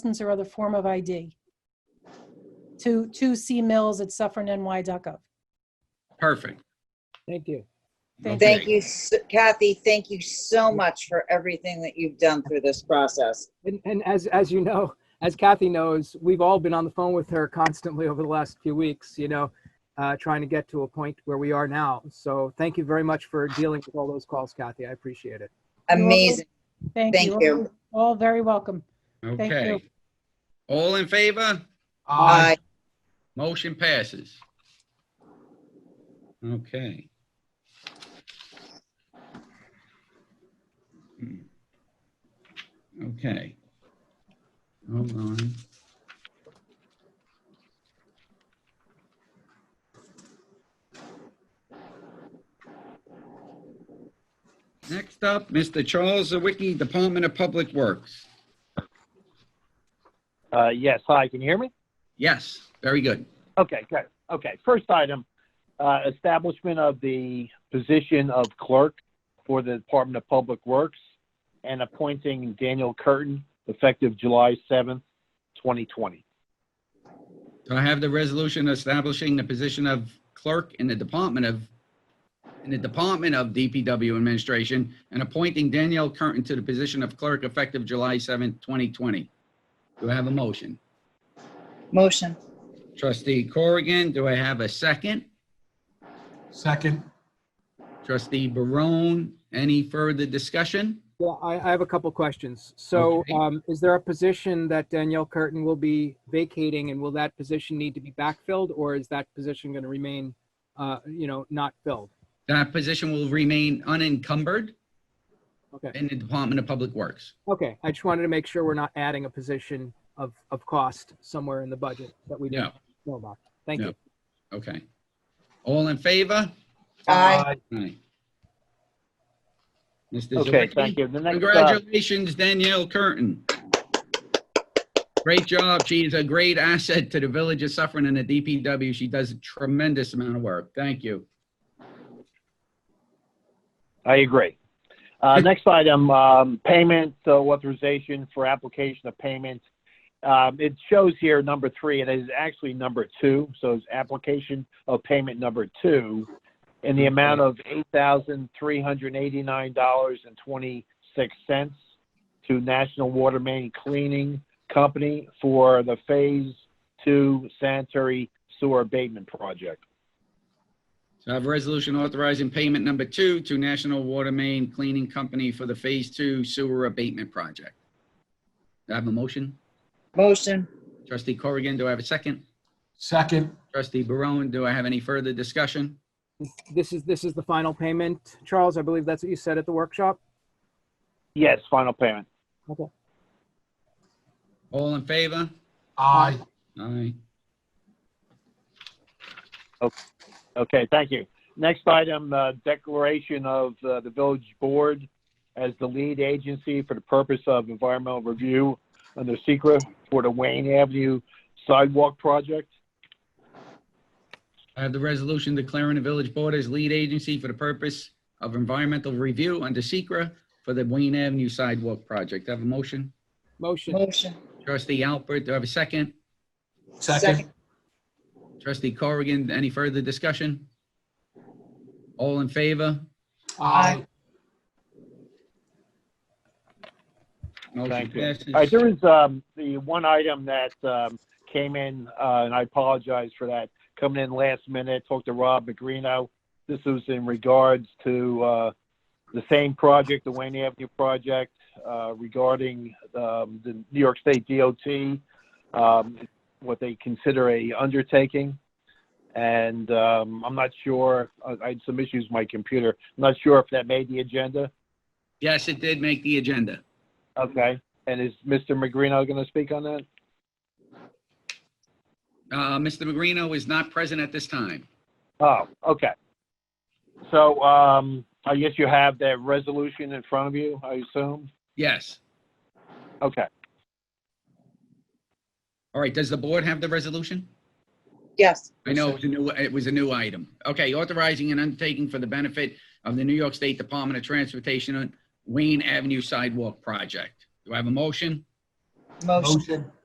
license or other form of ID to, to cmills@suffernny.gov. Perfect. Thank you. Thank Okay. Thank you, s- Kathy, thank you so much for everything that you've done through this process. And, and as, as you know, as Kathy knows, we've all been on the phone with her constantly over the last few weeks, you know, uh, trying to get to a point where we are now. So thank you very much for dealing with all those calls, Kathy. I appreciate it. welcome. Amazing. Thank you. Thank you. All very welcome. Thank Okay. All in favor? Bye. Motion passes. Okay. Hmm. Okay. Hold on. Next up, Mr. Charles Zawicki, Department of Public Works. Uh, Yes, hi, can you hear me? Yes, very good. Okay, good. Okay, first item, uh, establishment of the position of clerk for the Department of Public Works and appointing Daniel Curtin effective July 7th, 2020. Do I have the resolution establishing the position of clerk in the Department of, in the Department of DPW Administration and appointing Danielle Curtin to the position of clerk effective July 7th, 2020? Do I have a motion? Motion. Trustee Corrigan, do I have a second? Second, Trustee Barone, any further discussion? Well, I, I have a couple questions. So Okay. um, is there a position that Danielle Curtin will be vacating and will that position need to be backfilled or is that position going to remain, uh, you know, not filled? That position will remain unencumbered Okay. in the Department of Public Works. Okay. I just wanted to make sure we're not adding a position of, of cost somewhere in the budget that we No, didn't know about. Thank No. you. okay. All in favor? Aye. Aye. Mr. Okay, Zawicki? thank you. The next, uh, Congratulations, Danielle Curtin. Great job. She is a great asset to the village of Suffering and the DPW. She does a tremendous amount of work. Thank you. I agree. Uh, Next item, um, payment uh, authorization for application of payment. Um, It shows here number three, and it is actually number two, so it's application of payment number two in the amount of $8,389.26 to National Water Main Cleaning Company for the Phase Two sanitary sewer abatement project. So I have a resolution authorizing payment number two to National Water Main Cleaning Company for the Phase Two Sewer Abatement Project. Do I have a motion? Motion. Trustee Corrigan, do I have a second? second, Trustee Barone, do I have any further discussion? This is, this is the final payment. Charles, I believe that's what you said at the workshop. Yes, final payment. All in favor? aye. Aye. Okay, thank you. Next item, uh, declaration of uh, the village board as the lead agency for the purpose of environmental review under secret for the Wayne Avenue sidewalk project. I have the resolution declaring the village board as lead agency for the purpose of environmental review under Secra for the Wayne Avenue sidewalk project. Do I have a motion? Motion. Motion. Trustee Alpert, do I have a second? Second, Trustee Corrigan, any further discussion? All in favor? aye. Motion Thank you. passes. All right, there is um, the one item that um, came in, uh, and I apologize for that, coming in last minute, talked to Rob Magrino. This was in regards to uh, the same project, the Wayne Avenue project, uh, regarding um, the New York State DOT, um, what they consider a undertaking. And um, I'm not sure, I I had some issues with my computer. I'm not sure if that made the agenda. Yes, it did make the agenda. Okay. And is Mr. Magrino going to speak on that? Uh, Mr. Magrino is not present at this time. Oh, okay. So, um, I guess you have that resolution in front of you, I assume? Yes. Okay. All right, does the board have the resolution? Yes. I know it was a new, it was a new item. Okay, authorizing an undertaking for the benefit of the New York State Department of Transportation on Wayne Avenue Sidewalk Project. Do I have a motion? Motion. Motion.